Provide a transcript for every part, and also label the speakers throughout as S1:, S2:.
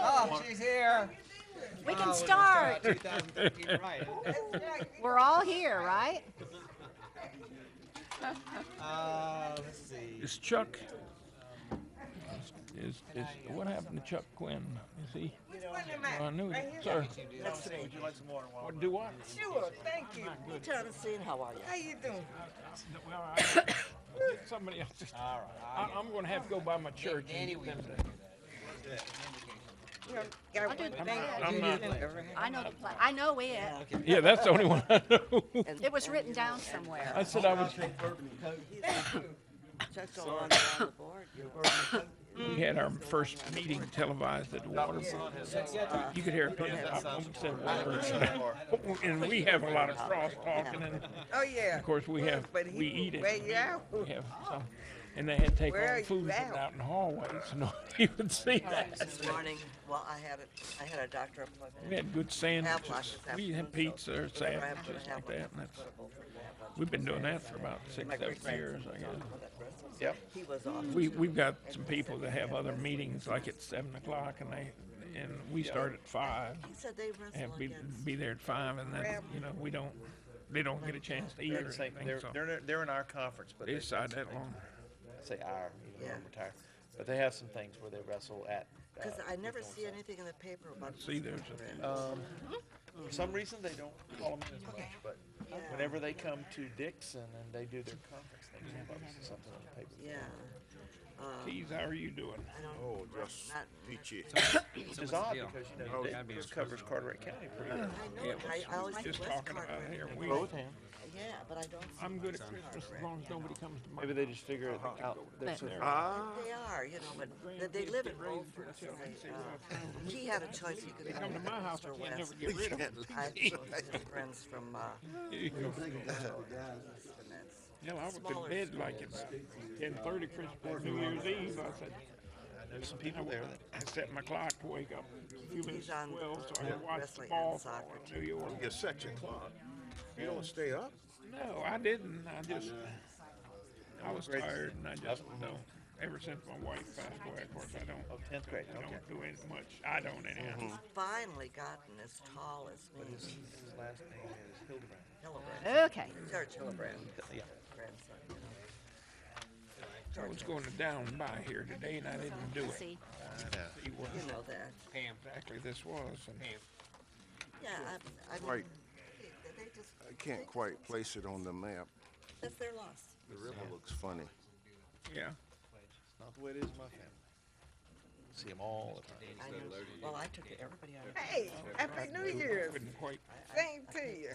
S1: Oh, she's here.
S2: We
S1: Wow,
S3: Oh,
S2: can
S1: it was, uh,
S2: start.
S1: 2013, right.
S2: We're all here, right?
S1: Uh, let's see.
S4: Is Chuck? Is, is what happened to Chuck Quinn? Is he?
S5: Which one am
S4: Oh, I
S5: I?
S4: knew
S5: Right
S4: it.
S5: here?
S4: Sir,
S1: Would you like some water? Wanda?
S4: what do what?
S5: Sure, thank you.
S6: Thomasine, how are you?
S5: How you doing?
S4: Somebody else. is-
S1: All
S4: I,
S1: right.
S4: I'm going to have to go by my church.
S1: Danny,
S4: and
S1: we
S4: get
S1: can
S4: them
S1: do
S4: to-
S1: that.
S5: You know, got one
S2: I'm
S5: thing.
S2: not-
S5: to
S4: I'm
S5: do.
S4: not-
S5: Remember,
S2: I know the play. I know it.
S4: Yeah, that's the only one I know.
S6: And
S2: It was written down somewhere.
S4: I said I was.
S6: Chuck's all on the board.
S4: We had our first meeting televised at the water. Bowl. You could hear people said water, and we have a lot of cross talking, and
S5: Oh, yeah.
S4: of course we have
S5: But he
S4: we eat
S5: Where
S4: it.
S5: you at?
S4: We have some, and they had to take all
S5: Where
S4: the
S5: you
S4: food
S5: at?
S4: out in the hallway, so nobody would see that.
S6: This morning, well, I had a, I had a doctor appointment.
S4: We had good
S6: Havelock
S4: sandwiches.
S6: this
S4: We had
S6: afternoon, so
S4: pizza or
S6: whenever I have
S4: sandwiches
S6: to
S4: like
S6: have
S4: that,
S6: one, that's
S4: and that's,
S6: what I go for.
S4: we've been doing that for about six,
S6: My
S4: seven
S6: great-grandson
S4: years, I
S6: was
S4: guess.
S6: on with that breakfast.
S4: Yep.
S6: He was off.
S4: We, we've got some people that have other meetings like at seven o'clock and they, and we start at five.
S6: He said they wrestle
S4: And be,
S6: against.
S4: be there at five and then, you know, we don't, they don't get a chance to eat
S3: They're,
S4: or
S3: the same-
S4: anything,
S3: they're,
S4: so.
S3: they're, they're in our conference, but
S4: They
S3: they,
S4: decide that long.
S3: I say our, even though
S6: Yeah.
S3: I'm retired. But they have some things where they wrestle at. uh,
S6: Because I
S3: with
S6: never
S3: one
S6: see
S3: another.
S6: anything in the paper about. this
S4: See, there's
S6: doctor.
S4: a- uh,
S3: Um, for some reason, they don't call them in as much, but whenever they come to Dixon and they do their conference, they call us something on the paper.
S6: Yeah,
S4: Keys, how are you doing?
S6: I don't.
S7: Oh, just
S6: not-
S7: peachy.
S3: Which is odd because, you know, Dixon covers Carteret County pretty well.
S6: I know,
S4: Yeah,
S6: it.
S4: well,
S6: I, I always
S4: we
S6: think
S4: Just
S6: West
S4: talking about
S6: Carteret.
S4: here.
S6: and I
S4: We,
S6: go,
S3: Both hands.
S6: Yeah, but I don't. see
S4: I'm good at
S6: West
S4: Christmas
S6: Carteret,
S4: as long as
S6: you know.
S4: nobody comes to my.
S3: Maybe they just figure it out. They're so-
S7: Ah,
S6: They are, you know, but th- they live in Beaufort. so they, uh, He had a choice, he could
S4: Come
S6: come
S4: to my house, I can never get rid of them.
S6: I chose his friends from, uh,
S4: You know,
S6: and that's-
S4: No, I was
S6: Smaller
S4: in bed like at ten thirty Christmas, New Year's Eve, I said,
S3: There's some people there that
S4: I set my clock to wake up a few minutes
S6: He's
S4: to
S6: on
S4: twelve, so I
S6: the
S4: could watch the
S6: wrestling and
S4: ball fall
S6: soccer
S4: in New York.
S7: you're such a clock. You don't stay up?
S4: No, I didn't, I just, I was
S3: Great.
S4: tired and I just don't, ever since my wife passed away, of course, I don't,
S3: Oh, 10th grade,
S4: I
S3: okay. Mm-hmm.
S4: don't do it much, I don't anyhow.
S6: finally gotten as tall as me,
S3: His his last name is Hildebrand.
S6: Hillebrand,
S2: Okay.
S6: George Hillebrand,
S3: Yeah.
S6: grandson.
S4: I was going to down by here today and I didn't do it.
S2: See,
S4: See what
S6: You know that.
S4: exactly this was and
S6: Yeah, I, I mean,
S7: Right.
S6: they- they just,
S7: I can't quite place it on the map.
S6: that's their loss.
S7: The river looks funny.
S4: Yeah,
S3: It's not the way it is in my family. See them all the time.
S6: I know, well, I took everybody out.
S5: Hey, Happy New Year's.
S4: couldn't quite,
S5: Same to you.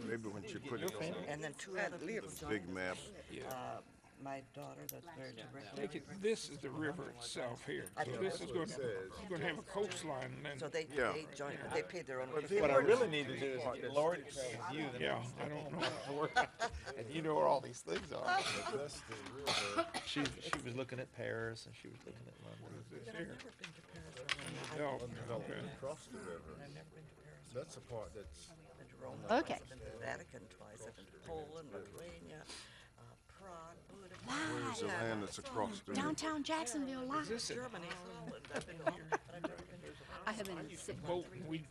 S7: Maybe when you put it on
S6: And then two other people
S7: the
S6: joined
S7: big map,
S6: us. Uh, my daughter that's married to Rick.
S4: take it, this is the river itself here, so this is gonna, it's gonna have a coastline and
S6: So
S4: then,
S6: they,
S7: Yeah.
S6: they joined, they paid their own.
S3: What I really need to do is get Lori to travel with you, then
S4: yeah, I don't know.
S3: I work out. and you know where all these things are. she she was looking at Paris and she was looking at London.
S4: No, okay.
S7: That's the part that's.
S2: Okay.
S6: I've been to the Vatican twice, I've been to Poland, Lithuania, uh, Prague, Budapest.
S7: There's a
S6: Yeah,
S7: land that's across the.
S2: downtown Jacksonville live.
S6: Germany, Holland, I've been here, but I've never been to
S2: I have been sick.
S4: boat, we,